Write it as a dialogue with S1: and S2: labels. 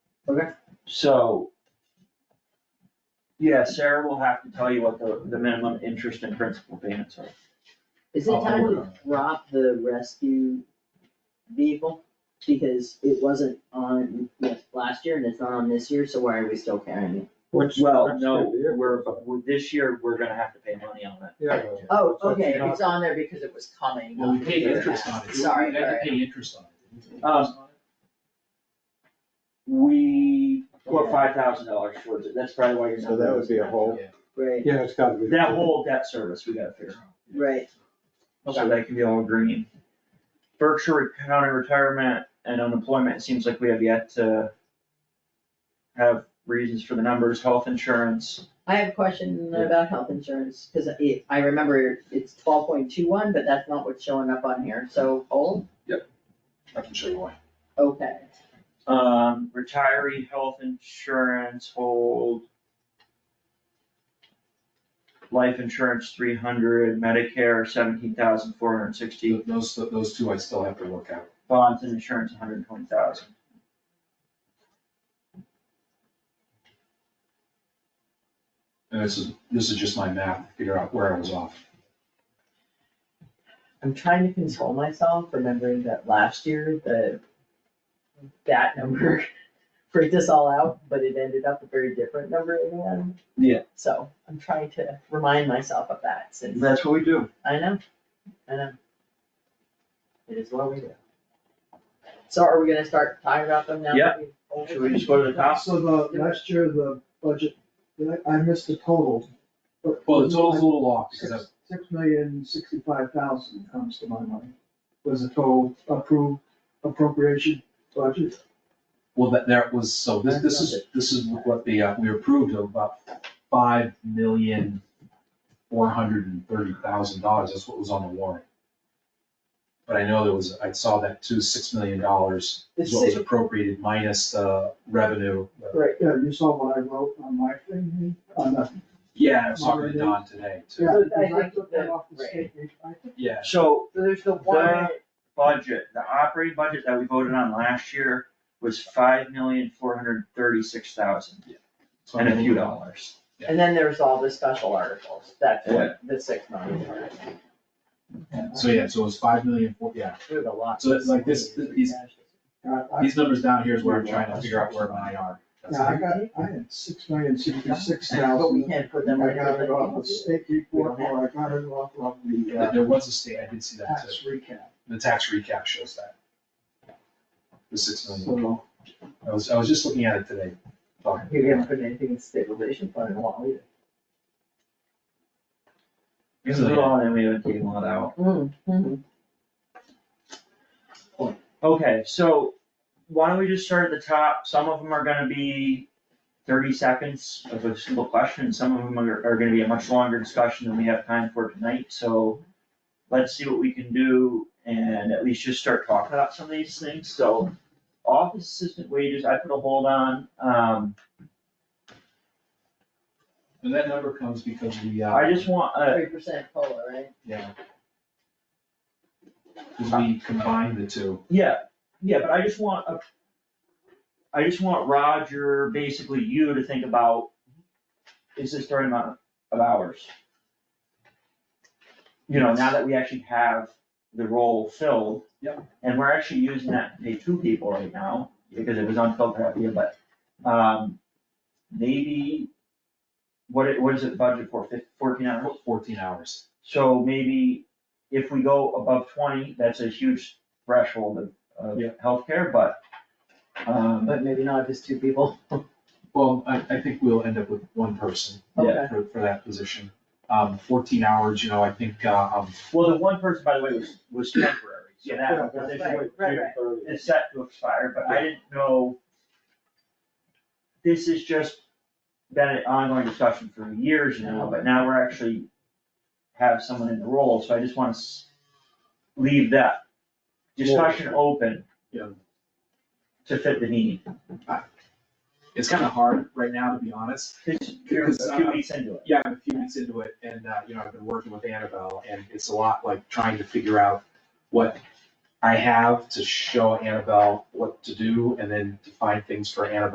S1: Okay.
S2: So. Yeah, Sarah will have to tell you what the, the minimum interest and principal payments are.
S3: Is it
S1: I'll- I'll
S3: time
S1: work
S3: to
S1: on that.
S3: drop the rescue vehicle? Because it wasn't on yes, last year and it's not on this year, so why are we still carrying it?
S1: Which.
S2: Well,
S1: that's
S2: no,
S1: the year.
S2: we're, but we- this year, we're gonna have to pay money on that.
S1: Yeah.
S3: Oh,
S1: That's what
S3: okay,
S1: you don't-
S3: it's on there because it was coming.
S4: Well, we paid
S1: Yeah.
S4: interest on it.
S3: Sorry,
S4: We had to
S3: alright.
S4: pay interest on it. Didn't we?
S2: Um, We put
S3: Yeah.
S2: five thousand dollars towards it, that's probably why you're not.
S5: So that would be a whole,
S4: Yeah.
S3: Right,
S1: Yeah, it's gotta be.
S2: That whole debt service, we gotta figure
S3: right,
S2: out, so they can be all green. Berkshire County retirement and unemployment, it seems like we have yet to have reasons for the numbers, health insurance.
S3: I have a question about health insurance, cause it, I remember it's twelve point two one, but that's not what's showing up on here, so hold,
S4: I can show you why.
S3: okay.
S2: Um, retiree health insurance hold. Life insurance three hundred, Medicare seventeen thousand four hundred sixty,
S4: Those, those two I still have to work out.
S2: bonds and insurance hundred twenty thousand.
S4: And this is, this is just my math, to figure out where I was off.
S3: I'm trying to console myself, remembering that last year, the, that number freaked us all out, but it ended up a very different number in the end.
S2: Yeah.
S3: So I'm trying to remind myself of that since,
S2: That's what we do.
S3: I know, I know. It is what we do. So are we gonna start talking about them now?
S2: Yeah.
S3: Okay.
S2: Should we just go to the top?
S6: So the, last year, the budget, I missed the total. but-
S4: Well, the total's a little off because
S6: Six
S4: that's,
S6: six million, sixty-five thousand comes to my mind, was the total approved appropriation budget.
S4: well, that, that was, so this, this is, this is what the, uh, we approved of about five million, four hundred and thirty thousand dollars. That's what was on the warrant. But I know there was, I saw that too, six million dollars is
S6: It's
S4: what was
S6: six,
S4: appropriated minus the revenue. uh,
S6: right, yeah, you saw what I wrote on my thing, on the.
S4: Yeah, I was talking to Don today too.
S6: yeah,
S3: I
S6: because I
S3: think
S6: took that off the
S3: that-
S6: state. I think
S4: Yeah,
S2: So
S3: There's the
S2: one- budget, the operating budget that we voted on last year was five million four hundred thirty-six thousand
S4: so
S2: and a few
S4: I'm-
S2: dollars.
S3: and then there's all the special articles, that's
S2: Yeah.
S3: what the six million are.
S4: So yeah, so it was five million, four- yeah,
S3: There's a lot.
S4: So it's like this- these-
S6: I- I-
S4: these numbers down here is where I'm trying to figure out where mine are. That's
S6: Yeah, I
S4: like-
S6: got, I had six million, sixty-six
S3: But we
S6: thousand,
S3: can't put
S6: and
S3: them
S6: I
S3: right
S6: got it off
S3: here.
S6: the state report, or I got it off of the
S4: There-
S6: uh,
S4: There was a state, I did see that
S6: tax
S4: too.
S6: recap,
S4: The tax recap shows that. The six million.
S6: so.
S4: I was, I was just looking at it today. talking.
S3: You haven't put anything in stabilization fund in a while either.
S2: It's a little, and then we haven't taken all that out. Okay, so why don't we just start at the top? Some of them are gonna be thirty seconds of a simple question. Some of them are, are gonna be a much longer discussion than we have time for tonight, so let's see what we can do and at least just start talking about some of these things. So office assistant wages, I put a hold on. Um,
S4: And that number comes because we, uh.
S2: I just want, uh,
S3: Three percent COLA, right?
S4: Yeah. Because we combined the two.
S2: Yeah, yeah, but I just want, a- I just want Roger, basically you to think about, is this the right amount of hours? You know, now that we actually have the role filled.
S4: Yep.
S2: And we're actually using that to pay two people right now, because it was unfilled that year, but, um, maybe, what, it- what is it budget for, fif- fourteen hours?
S4: Fourteen hours.
S2: So maybe if we go above twenty, that's a huge threshold of, of
S4: Yeah.
S2: healthcare, but, um,
S3: But maybe not if it's two people.
S4: Well, I, I think we'll end up with one person
S3: Okay.
S4: for, for that position. Um, fourteen hours, you know, I think, uh, um,
S2: well, the one person, by the way, was, was temporary, so
S6: Yeah,
S2: that
S6: that's
S2: position
S3: right,
S2: would-
S3: right, right.
S2: is set to expire, but I didn't know. This has just been an ongoing discussion for years now, but now we're actually have someone in the role, so I just wanna s- leave that discussion open
S4: Yeah.
S2: to fit the need.
S4: it's kind of hard right now, to be honest.
S2: It's- you're a few weeks into it.
S4: Yeah, I'm a few weeks into it and, uh, you know, I've been working with Annabelle and it's a lot like trying to figure out what I have to show Annabelle what to do and then to find things for Annabelle